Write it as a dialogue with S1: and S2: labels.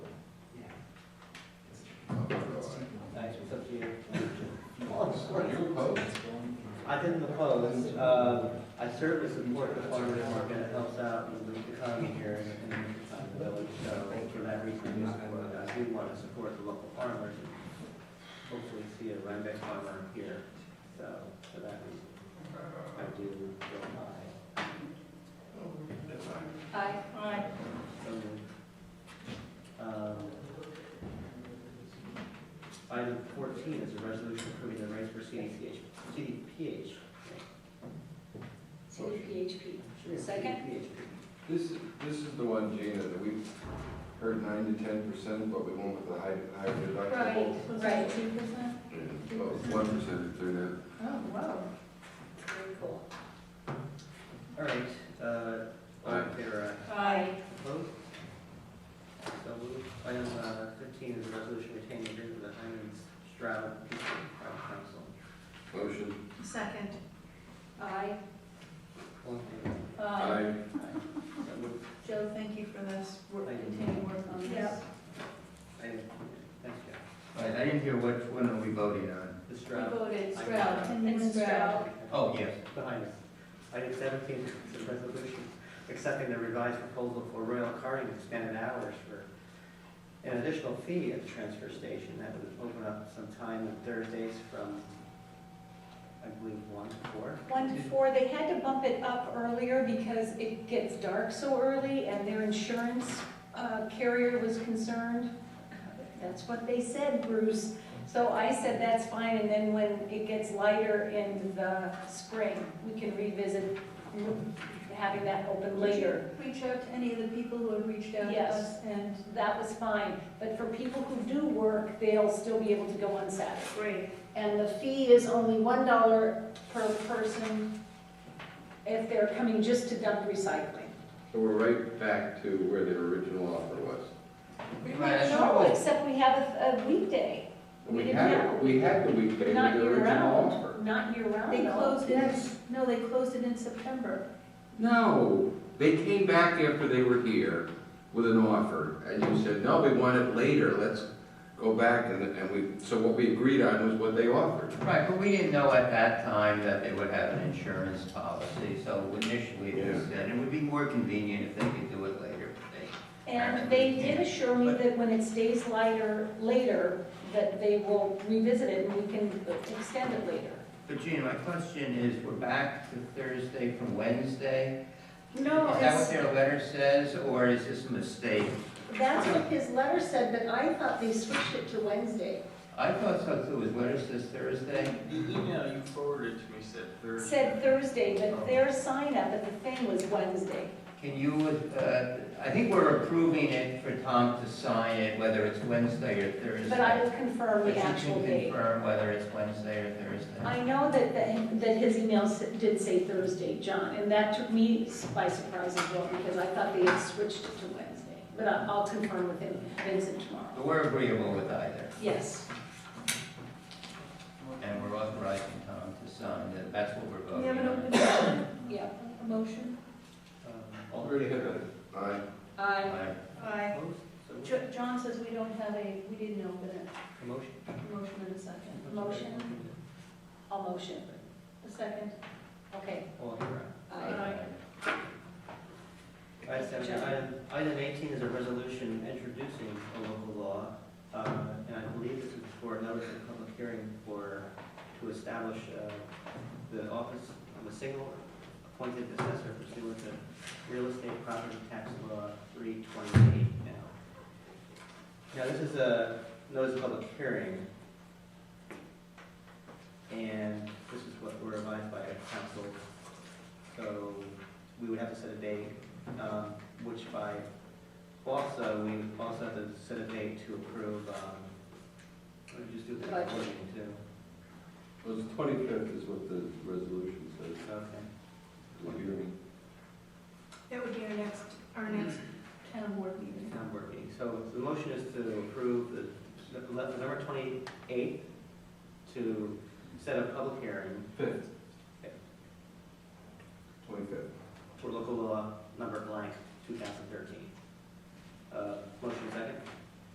S1: Are you opposed?
S2: I didn't oppose, uh, I serve as support the farmer's market, it helps out in the economy here in, in the village, so for that reason, I support it. I do want to support the local farmers, and hopefully see a Rhinebeck farmer here, so for that reason, I do go aye.
S3: Aye. Aye.
S2: So moved. Um, Item fourteen is a resolution approving the rates for CDPH, CDPH.
S3: To the PHP. Second.
S1: This, is this is the one, Gina, that we've heard nine to ten percent, but we went with the high, higher deductible.
S3: Right.
S4: Two percent?
S1: One percent through
S4: Oh, wow.
S3: Very cool.
S2: All right, uh, all in favor, aye.
S3: Aye.
S2: Opposed? So moved. Item uh, fifteen is a resolution retaining agreement with the Hyman's Stroud Peace Crown Council.
S1: that. Motion.
S4: Second.
S3: Aye.
S2: All in favor?
S1: Aye.
S2: So moved.
S4: Joe, thank you for this, work, continued work on this.
S3: Yep.
S2: Item- Thanks, Jeff.
S5: I, I didn't hear which one are we voting on?
S2: The
S3: We
S2: Stroud.
S3: voted
S2: Aye.
S3: Stroud. And Stroud.
S5: Oh, yes.
S2: Behind us. Item seventeen is a resolution accepting the revised proposal for Royal Carting expanded hours for an additional fee at the transfer station. That would open up some time on Thursdays from, I believe, one to four.
S6: One to four, they had to bump it up earlier because it gets dark so early and their insurance uh, carrier was concerned. That's what they said, Bruce. So I said, that's fine, and then when it gets lighter in the spring, we can revisit having that open later.
S4: Reach out to any of the people who have reached out to
S6: Yes.
S4: us and.
S6: That was fine, but for people who do work, they'll still be able to go on Saturday.
S4: Great.
S6: And the fee is only one dollar per person if they're coming just to dump recycling.
S1: So we're right back to where the original offer was.
S6: We
S5: Well, that's
S6: might know, except we have a a weekday.
S1: We
S6: didn't
S1: had,
S6: have-
S1: we had the weekday with
S6: Not
S1: the original offer.
S6: year-round, not year-round.
S4: They
S6: though.
S4: closed it, no, they closed it in September.
S1: No, they came back after they were here with an offer, and you said, no, we want it later, let's go back, and, and we, so what we agreed on was what they offered.
S5: Right, but we didn't know at that time that they would have an insurance policy, so initially it was, and it would be more convenient if they could do it later. but they-
S6: And they did assure me that when it stays lighter, later, that they will revisit it and we can extend it later.
S5: But Gina, my question is, we're back to Thursday from Wednesday?
S6: No,
S5: Is that what
S6: it's,
S5: their letter says, or is this a mistake?
S6: that's what his letter said, but I thought they switched it to Wednesday.
S5: I thought so too, his letter says Thursday?
S7: The email you forwarded to me said Thursday.
S6: Said Thursday, but their sign up at the thing was Wednesday.
S5: Can you, uh, I think we're approving it for Tom to sign it, whether it's Wednesday or Thursday.
S6: But I will confirm
S5: But
S6: the
S5: you
S6: actual
S5: can
S6: date.
S5: confirm whether it's Wednesday or Thursday.
S6: I know that, that that his email s- did say Thursday, John, and that took me by surprise as well, because I thought they had switched it to Wednesday. But I- I'll confirm with him, Vincent, tomorrow.
S5: But we're agreeable with either,
S6: Yes.
S5: and we're authorizing Tom to sign, that that's what we're voting
S4: We have an
S5: on.
S4: open a
S6: Yeah.
S4: motion.
S2: Um,
S1: Already had that. Aye.
S6: I,
S5: Aye.
S4: Aye.
S2: Opposed? So moved.
S4: Jo- John says we don't have a, we didn't open it.
S2: A motion?
S4: Motion and a second.
S6: Motion. I'll motion.
S4: A second.
S6: Okay.
S2: All in favor, aye.
S6: Aye.
S2: Item seventeen, item, item eighteen is a resolution introducing a local law, uh, and I believe this is for a notice of public hearing for, to establish, uh, the office of a single appointed assessor pursuant to real estate property tax law three twenty-eight now. Now, this is a notice of public hearing, and this is what we're advised by council, so we would have to set a date um, which by, also, we also have to set a date to approve, um, we just do the
S6: Budget.
S2: recording too.
S1: Well, the twenty-fifth is what the resolution says.
S2: Okay.
S1: Will you hear me?
S4: That would be our next, our next town board meeting.
S2: Town board meeting. So the motion is to approve the, the le- November twenty-eighth to set a public hearing
S1: Fifth. Twenty-fifth.
S2: for local law number blank, two thousand thirteen. Uh, motion second?